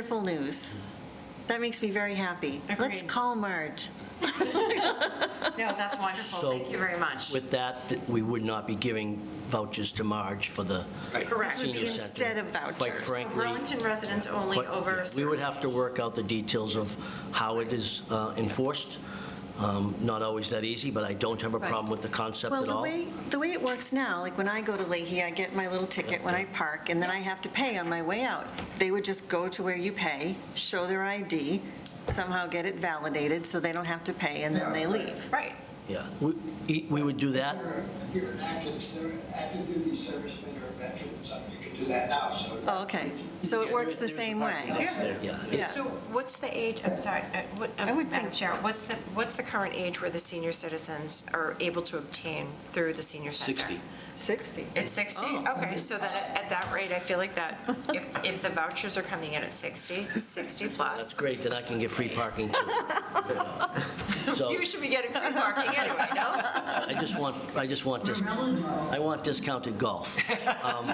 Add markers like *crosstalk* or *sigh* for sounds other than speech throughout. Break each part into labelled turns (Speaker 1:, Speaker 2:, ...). Speaker 1: Wonderful news. That makes me very happy. Let's
Speaker 2: Agreed.
Speaker 1: call Marge.
Speaker 2: No, that's wonderful.
Speaker 3: So-
Speaker 2: Thank you very much.
Speaker 3: With that, th- we would not be giving vouchers to Marge for the
Speaker 2: Correct.
Speaker 1: This would
Speaker 3: senior
Speaker 1: be
Speaker 3: center.
Speaker 1: instead of
Speaker 3: Quite
Speaker 1: vouchers.
Speaker 2: So
Speaker 3: frankly,
Speaker 2: Burlington residents only
Speaker 3: quite-
Speaker 2: over a
Speaker 3: we
Speaker 2: certain-
Speaker 3: would have to work out the details of how it is uh, enforced. Um, Not always that easy, but I don't have a problem with the concept
Speaker 1: Well,
Speaker 3: at
Speaker 1: the
Speaker 3: all.
Speaker 1: way, the way it works now, like when I go to Leahy, I get my little ticket when I park, and then I have to pay on my way out. They would just go to where you pay, show their ID, somehow get it validated so they don't have to pay, and then they leave.
Speaker 2: Right.
Speaker 3: Yeah, we e- we would do that.
Speaker 4: If you're an active, ser- active duty serviceman or a veteran, or something, you can do that now, so.
Speaker 1: Oh, okay. So it works the same way.
Speaker 3: Yeah.
Speaker 1: Yeah.
Speaker 2: So what's the age, I'm sorry, uh, what-
Speaker 1: I would
Speaker 2: um, Madam
Speaker 1: think-
Speaker 2: Chair, what's the, what's the current age where the senior citizens are able to obtain through the senior center?
Speaker 5: 60.
Speaker 1: 60.
Speaker 2: It's 60? Okay, so then at at that rate, I feel like that, if, if the vouchers are coming in at 60, 60
Speaker 3: That's
Speaker 2: plus,
Speaker 3: great, then I can get free parking too.
Speaker 1: *laughs*
Speaker 3: So
Speaker 2: you should be getting free parking anyway, no?
Speaker 3: I just want, I just want this, I want discounted golf. Um,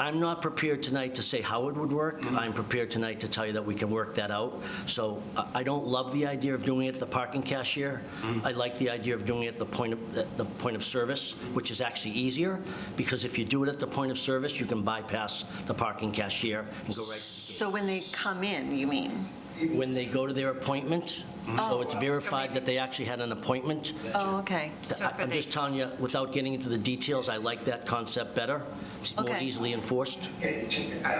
Speaker 3: I'm not prepared tonight to say how it would work. I'm prepared tonight to tell you that we can work that out. So I- I don't love the idea of doing it at the parking cashier. I like the idea of doing it at the point of, at the point of service, which is actually easier, because if you do it at the point of service, you can bypass the parking cashier and go right to the gate
Speaker 1: So when they come in, you mean?
Speaker 3: when they go to their appointment, so it's
Speaker 2: Oh, so
Speaker 3: verified
Speaker 2: maybe-
Speaker 3: that they actually had an appointment.
Speaker 1: Oh, okay.
Speaker 2: So
Speaker 3: I-
Speaker 2: could
Speaker 3: I'm
Speaker 2: they-
Speaker 3: just telling you, without getting into the details, I like that concept better. It's more
Speaker 1: Okay.
Speaker 3: easily enforced.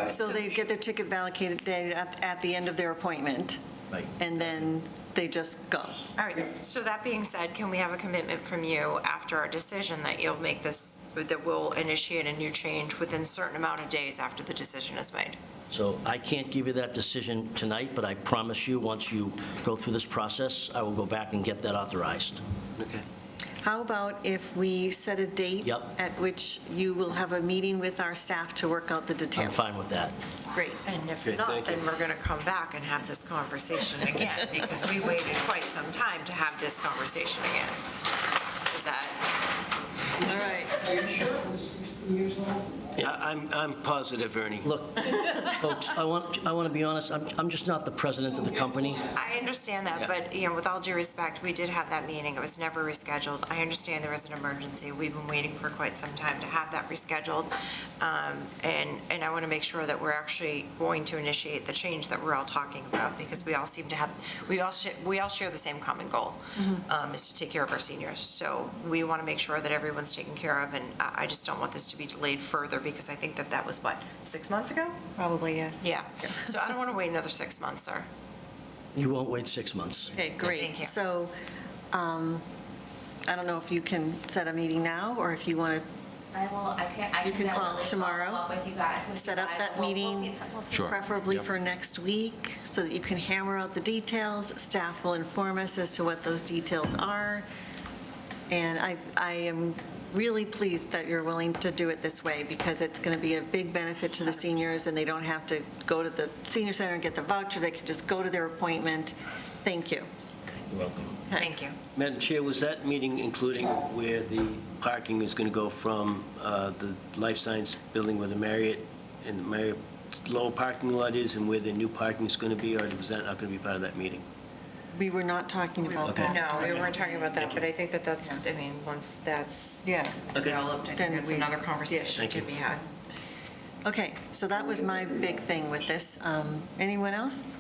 Speaker 1: So they get their ticket validated day at, at the end of their appointment,
Speaker 3: Right.
Speaker 1: and then they just go.
Speaker 2: All right, so that being said, can we have a commitment from you after our decision that you'll make this, that we'll initiate a new change within a certain amount of days after the decision is made?
Speaker 3: So I can't give you that decision tonight, but I promise you, once you go through this process, I will go back and get that authorized.
Speaker 5: Okay.
Speaker 1: How about if we set a date?
Speaker 3: Yep.
Speaker 1: At which you will have a meeting with our staff to work out the details?
Speaker 3: I'm fine
Speaker 1: *laughs*
Speaker 3: with that.
Speaker 1: Great.
Speaker 2: And if
Speaker 5: Good,
Speaker 2: not,
Speaker 5: thank you.
Speaker 2: then we're going to come back and have this conversation
Speaker 5: *laughs*
Speaker 2: again, because we waited quite some time to have this conversation again. Is that,
Speaker 1: All right.
Speaker 4: Are you sure it was 60 years old?
Speaker 5: I- I'm, I'm positive, Ernie.
Speaker 3: Look, folks, I want, I want to be honest, I'm, I'm just not the president of the company.
Speaker 2: I understand that, but, you know, with all due respect, we did have that meeting, it was never rescheduled. I understand there was an emergency, we've been waiting for quite some time to have that rescheduled. Um, And, and I want to make sure that we're actually going to initiate the change that we're all talking about, because we all seem to have, we all, sh- we all share the same common goal, um, is to take care of our seniors. So we want to make sure that everyone's taken care of, and I I just don't want this to be delayed further, because I think that that was, what, six months ago?
Speaker 1: Probably, yes.
Speaker 2: Yeah, so I don't want to wait another six months, sir.
Speaker 3: You won't wait six months.
Speaker 1: Okay,
Speaker 2: Thank
Speaker 1: great.
Speaker 2: you.
Speaker 1: So um, I don't know if you can set a meeting now, or if you want to
Speaker 6: I will, I can, I
Speaker 1: You
Speaker 6: can
Speaker 1: can call
Speaker 6: definitely
Speaker 1: tomorrow,
Speaker 6: follow up with you guys. with you
Speaker 1: set up
Speaker 6: guys,
Speaker 1: that
Speaker 6: and we'll- we'll
Speaker 1: meeting.
Speaker 6: feed some- we'll Um, feed-
Speaker 1: preferably for next week, so that you can hammer out the details. Staff will inform us as to what those details are. And I, I am really pleased that you're willing to do it this way, because it's going to be a big benefit to the seniors, and they don't have to go to the senior center and get the voucher, they can just go to their appointment. Thank you.
Speaker 3: You're welcome.
Speaker 2: Thank you.
Speaker 5: Madam Chair, was that meeting including where the parking is going to go from uh, the life science building where the Marriott and the Marriott low parking lot is and where the new parking is going to be, or was that not going to be part of that meeting?
Speaker 1: We were not talking about that.
Speaker 2: No, we weren't talking about that, but I think that that's, I mean, once that's
Speaker 1: Yeah.
Speaker 2: developed, I
Speaker 1: Then
Speaker 2: think that's
Speaker 1: we-
Speaker 2: another
Speaker 1: yes.
Speaker 2: conversation
Speaker 5: Thank
Speaker 2: to
Speaker 5: you.
Speaker 2: be had.
Speaker 1: Okay, so that was my big thing with this. Um, Anyone else?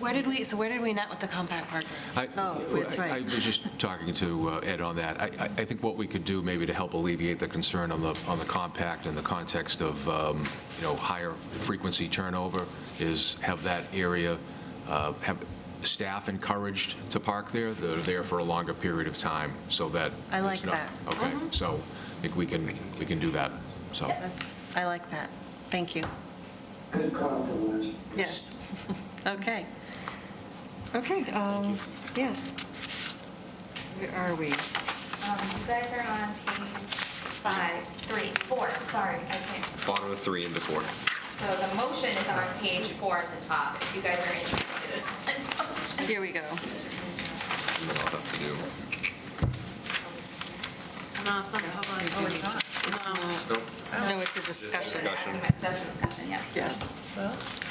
Speaker 7: Where did we, so where did we not with the compact parking?
Speaker 8: I-
Speaker 1: Oh, that's
Speaker 8: I-
Speaker 1: right.
Speaker 8: I was just talking to uh, Ed on that. I I- I think what we could do maybe to help alleviate the concern on the, on the compact in the context of, um, you know, higher frequency turnover is have that area, uh, have staff encouraged to park there. They're there for a longer period of time so that.
Speaker 1: I like
Speaker 8: there's
Speaker 1: that. Mm-hmm.
Speaker 8: not- Okay, so I think we can, we can do that, so.
Speaker 1: I like that. Thank you.
Speaker 4: Good call, Delores.
Speaker 1: Yes. *laughs* Okay. Okay, um, yes. Where are we?
Speaker 6: Um, You guys are on page five, three, four, sorry, I can't.
Speaker 9: bottom of three into four.
Speaker 6: So the motion is on page four at the top, if you guys are interested.
Speaker 1: Here we go.
Speaker 9: And then I'll have to do,
Speaker 7: No, it's not, hold on. Oh, it's not.
Speaker 1: No, it's a discussion.
Speaker 9: Discussion.
Speaker 6: That's discussion, yeah.
Speaker 1: Yes.